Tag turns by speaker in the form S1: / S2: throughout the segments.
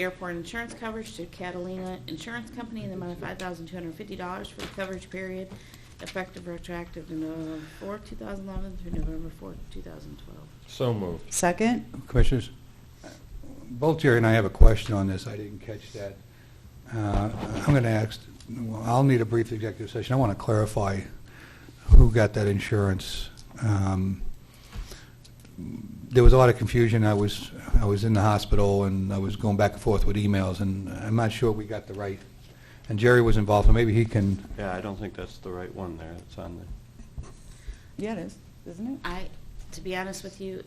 S1: airport insurance coverage to Catalina Insurance Company in the amount of five thousand two hundred and fifty dollars for the coverage period effective retroactive to November fourth, two thousand eleven through November fourth, two thousand twelve.
S2: So moved.
S3: Second?
S4: Commissioners, both Jerry and I have a question on this. I didn't catch that. Uh, I'm going to ask, well, I'll need a brief executive session. I want to clarify who got that insurance. Um, There was a lot of confusion. I was, I was in the hospital, and I was going back and forth with emails, and I'm not sure we got the right, and Jerry was involved, so maybe he can,
S5: Yeah, I don't think that's the right one there. It's on the,
S3: Yeah, it is, isn't it?
S1: I, to be honest with you,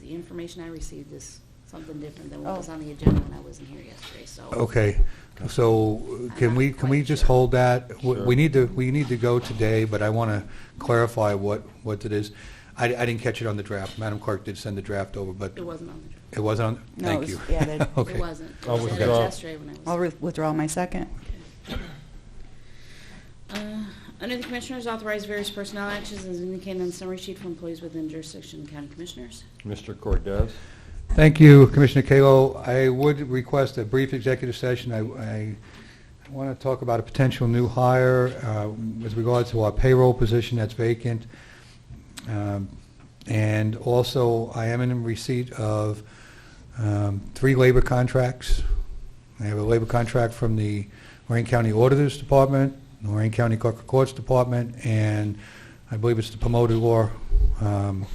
S1: the information I received is something different than
S3: Oh.
S1: what was on the agenda when I wasn't here yesterday, so.
S4: okay. So can we, can we just hold that? We- We
S2: Sure.
S4: need to, we need to go today, but I want to clarify what, what it is. I, I didn't catch it on the draft. Madam Clerk did send the draft over, but
S1: It wasn't on the,
S4: it wasn't on,
S3: No, it
S4: thank
S3: was-
S4: you.
S3: yeah, they- It
S1: draft.
S4: Okay.
S1: it wasn't. It
S2: I'll
S1: was added
S2: withdraw.
S1: yesterday when I was.
S3: I'll re- withdraw my second.
S1: Uh, Under the Commissioners, authorize various personnel actions as indicated on the summary sheet for employees within jurisdiction of the County Commissioners.
S2: Mr. Cordez?
S4: Thank you, Commissioner Kalo. I would request a brief executive session. I, I want to talk about a potential new hire uh, with regards to our payroll position that's vacant. Um, And also, I am in receipt of um, three labor contracts. I have a labor contract from the Lorraine County Auditor's Department, Lorraine County Clerk of Courts Department, and I believe it's the promoted law um,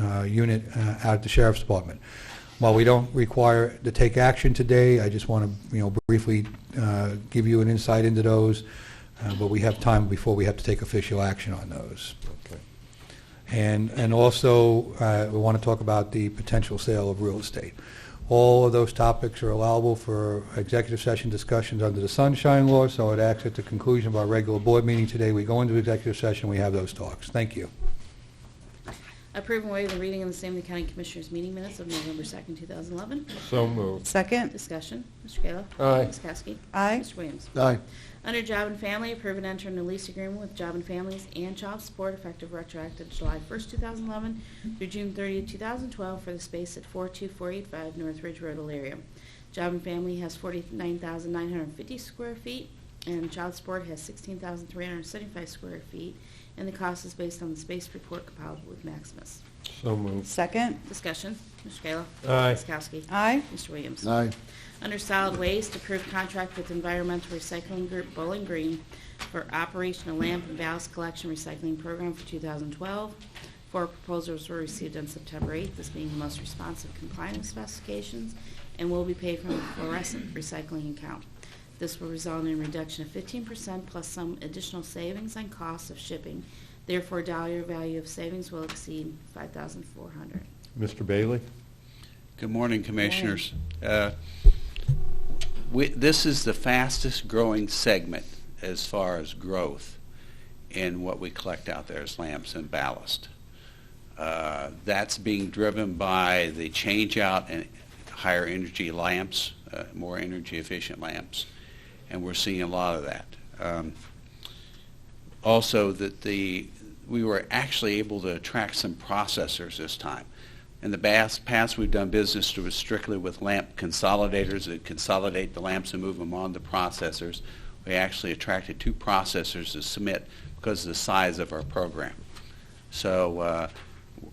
S4: uh, unit uh, out at the Sheriff's Department. While we don't require to take action today, I just want to, you know, briefly uh, give you an insight into those, uh, but we have time before we have to take official action on those.
S2: Okay.
S4: And, and also, uh, we want to talk about the potential sale of real estate. All of those topics are allowable for executive session discussions under the Sunshine Law, so it acts at the conclusion of our regular board meeting today. We go into executive session, we have those talks. Thank you.
S1: Approve and waive the reading of the same in the County Commissioners' meeting minutes of November 2nd, 2011.
S2: So moved.
S3: Second?
S1: Discussion, Mr. Kayla.
S2: Aye.
S1: Ms. Kowski.
S3: Aye.
S1: Mr. Williams.
S4: Aye.
S1: Under Job and Family, approve and enter into lease agreement with Job and Families and Child Support effective retroactive to July 1st, 2011 through June 30th, 2012 for the space at 42485 North Ridge Road, Elyria. Job and Family has 49,950 square feet, and Child Support has 16,375 square feet, and the cost is based on the space report compiled with Maximus.
S2: So moved.
S3: Second?
S1: Discussion, Mr. Kayla.
S2: Aye.
S1: Ms. Kowski.
S3: Aye.
S1: Mr. Williams.
S6: Aye.
S1: Under solid waste, approved contract with Environmental Recycling Group Bowling Green for operation of lamp and valves collection recycling program for 2012. Four proposals were received on September 8th, this being the most responsive compliant with specifications, and will be paid from the fluorescent recycling account. This will result in a reduction of 15% plus some additional savings on costs of shipping. Therefore, dollar value of savings will exceed 5400
S2: Mr. Bailey?
S7: Good morning, Commissioners. Uh, we- This is the fastest-growing segment as far as growth in what we collect out there as lamps and ballast. Uh, That's being driven by the change-out and higher energy lamps, uh, more energy-efficient lamps, and we're seeing a lot of that. Um, Also, that the, we were actually able to attract some processors this time. In the bas- past, we've done business to- strictly with lamp consolidators that consolidate the lamps and move them on to processors. We actually attracted two processors to submit because of the size of our program. So uh,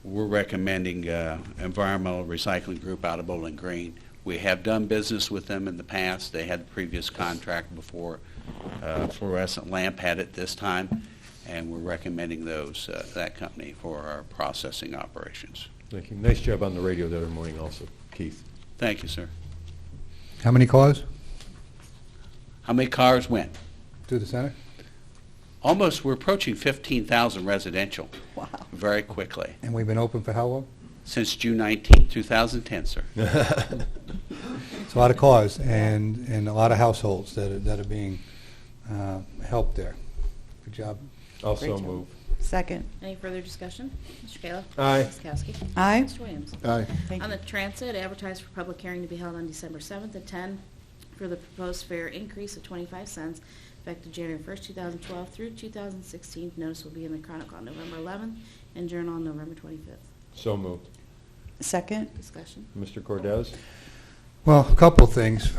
S7: we're recommending uh, Environmental Recycling Group out of Bowling Green. We have done business with them in the past. They had the previous contract before uh, fluorescent lamp had it this time, and we're recommending those, uh, that company for our processing operations.
S2: Thank you. Nice job on the radio the other morning also, Keith.
S7: Thank you, sir.
S4: How many cars?
S7: How many cars went?
S4: Through the center?
S7: Almost, we're approaching 15,000 residential
S3: Wow.
S7: very quickly,
S4: And we've been open for how long?
S7: since June 19, 2010, sir.
S4: It's a lot of cars and, and a lot of households that are, that are being uh, helped there. Good job.
S2: Also
S3: Great job.
S2: moved.
S3: Second?
S1: Any further discussion? Mr. Kayla.
S2: Aye.
S1: Ms. Kowski.
S3: Aye.
S1: Mr. Williams.
S6: Aye.
S3: Thank
S1: On
S3: you.
S1: the transit, advertised for public hearing to be held on December 7th at 10 for the proposed fare increase of 25 cents effective January 1st, 2012 through 2016. Notice will be in the Chronicle on November 11th and Journal on November 25th.
S2: So moved.
S3: Second?
S1: Discussion.
S2: Mr. Cordez?
S4: Well, a couple of things.